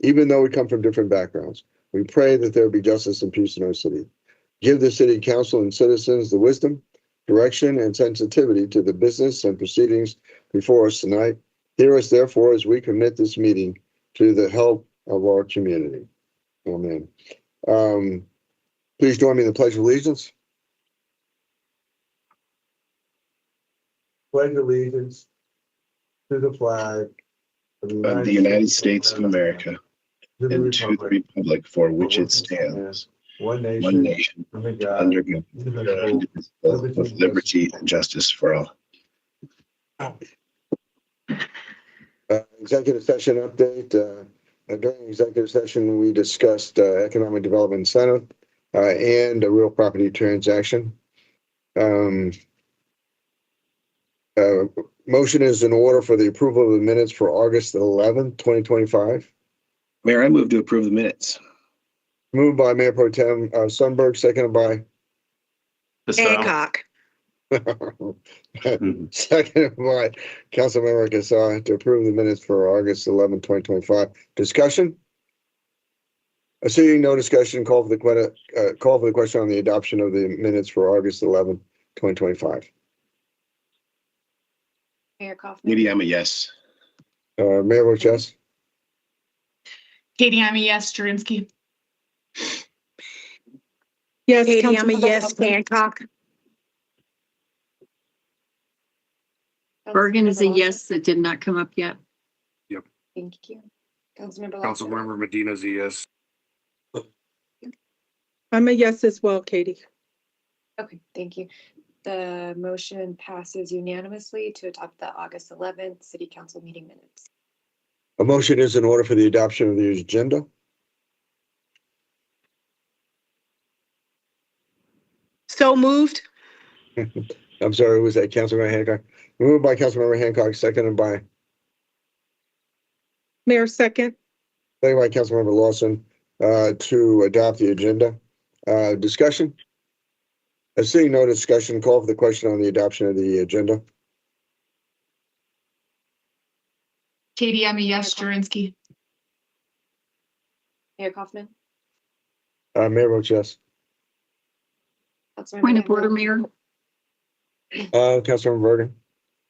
even though we come from different backgrounds. We pray that there be justice and peace in our city. Give the city council and citizens the wisdom, direction, and sensitivity to the business and proceedings before us tonight. Hear us therefore as we commit this meeting to the help of our community. Amen. Um, please join me in the pledge of allegiance. Pledge allegiance to the flag of the United States of America and to the republic for which it stands, One one nation, under under God, indivisible, with liberty and justice for all. Uh, Executive session update. uh, uh, During executive session, we discussed uh, economic development incentive uh, and a real property transaction. Um, uh, Motion is in order for the approval of the minutes for August 11th, 2025. Mayor, I move to approve the minutes. Moved by Mayor Pro Tem uh, Sunberg, seconded by, Hancock. seconded by Councilmember Casar to approve the minutes for August 11th, 2025. Discussion? Uh, Seeing no discussion, call for the, que- uh, call for the question on the adoption of the minutes for August 11th, 2025. Mayor Kaufman. Maybe I'm a yes. Uh, Mayor Rochess, Katie, I'm a yes. Jurenski. Yes. Katie, I'm a Councilmember yes. Huffman. Hancock. Bergen is a Councilmember yes that did not come up yet. Lawson, Thank you. Councilmember. Lawson. Councilmember Medina's a yes. I'm a yes as well, Katie. Okay, thank you. The motion passes unanimously to adopt the August eleventh city council meeting minutes. a motion is in order for the adoption of the agenda. So moved. I'm sorry, who was that? Councilmember Hancock. Moved by Councilmember Hancock, seconded by, Mayor second, seconded by Councilmember Lawson, uh, to adopt the agenda. Uh, discussion? Uh, Seeing no discussion, call for the question on the adoption of the agenda. Katie, I'm a yes. Jurenski. Mayor Kaufman. Uh, Mayor votes yes. Councilmember Point of Hancock, order, Mayor, Uh, Councilmember Bergen,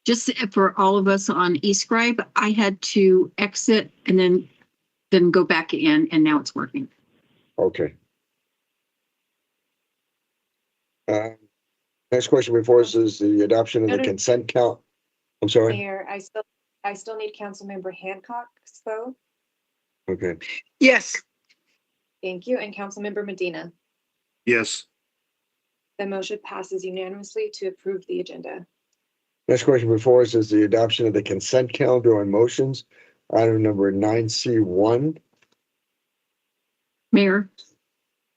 just for all of us on eScribe, I had to exit and then, then go back in and now it's working. okay. Uh, Next question before us is the adoption of No, the no. consent count. I'm sorry, Mayor, I still, I still need Councilmember Hancock's vote. okay. Yes. Thank you. And Councilmember Medina. Yes, The motion passes unanimously to approve the agenda. Next question before us is the adoption of the consent calendar on motions, item number nine C one. Mayor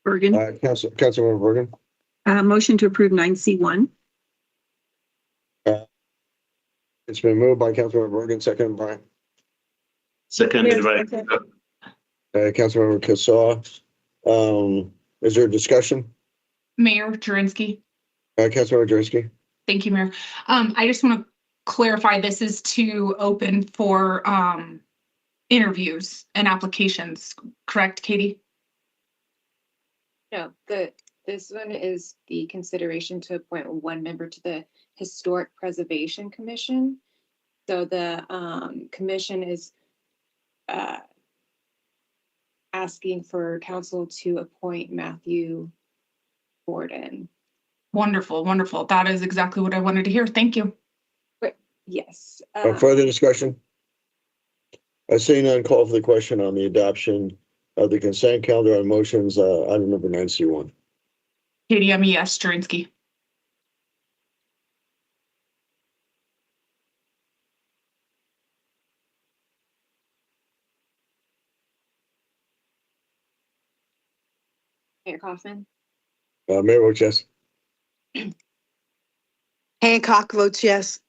Bergen, Uh, Council, Councilmember Bergen, uh, motion to approve nine C one. it's been moved by Councilmember Bergen, seconded by, Yes, Seconded by, second. uh, Councilmember Cassaw. Um, is there a discussion? Mayor Jurenski. Uh, Councilmember Jersey, Thank you, Mayor. Um, I just want to clarify, this is to open for, um, interviews and applications, correct, Katie? No, the, this one is the consideration to appoint one member to the Historic Preservation Commission. So the um commission is uh asking for council to appoint Matthew Gordon. Wonderful, wonderful. That is exactly what I wanted to hear. Thank you. Yes. Uh, uh, further discussion? I see none, call for the question on the adoption of the consent calendar on motions, uh, item number nine C one. Katie, E I'm a yes. Jurenski. Mayor Kaufman, Uh, Mayor votes yes. Hancock votes yes.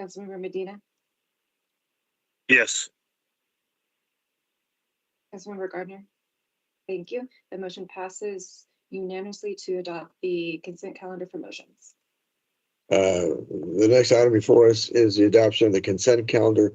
Councilmember Medina, yes, Councilmember Gardner. Thank you. The motion passes unanimously to adopt the consent calendar for motions. Uh, the next item before us is the adoption of the consent calendar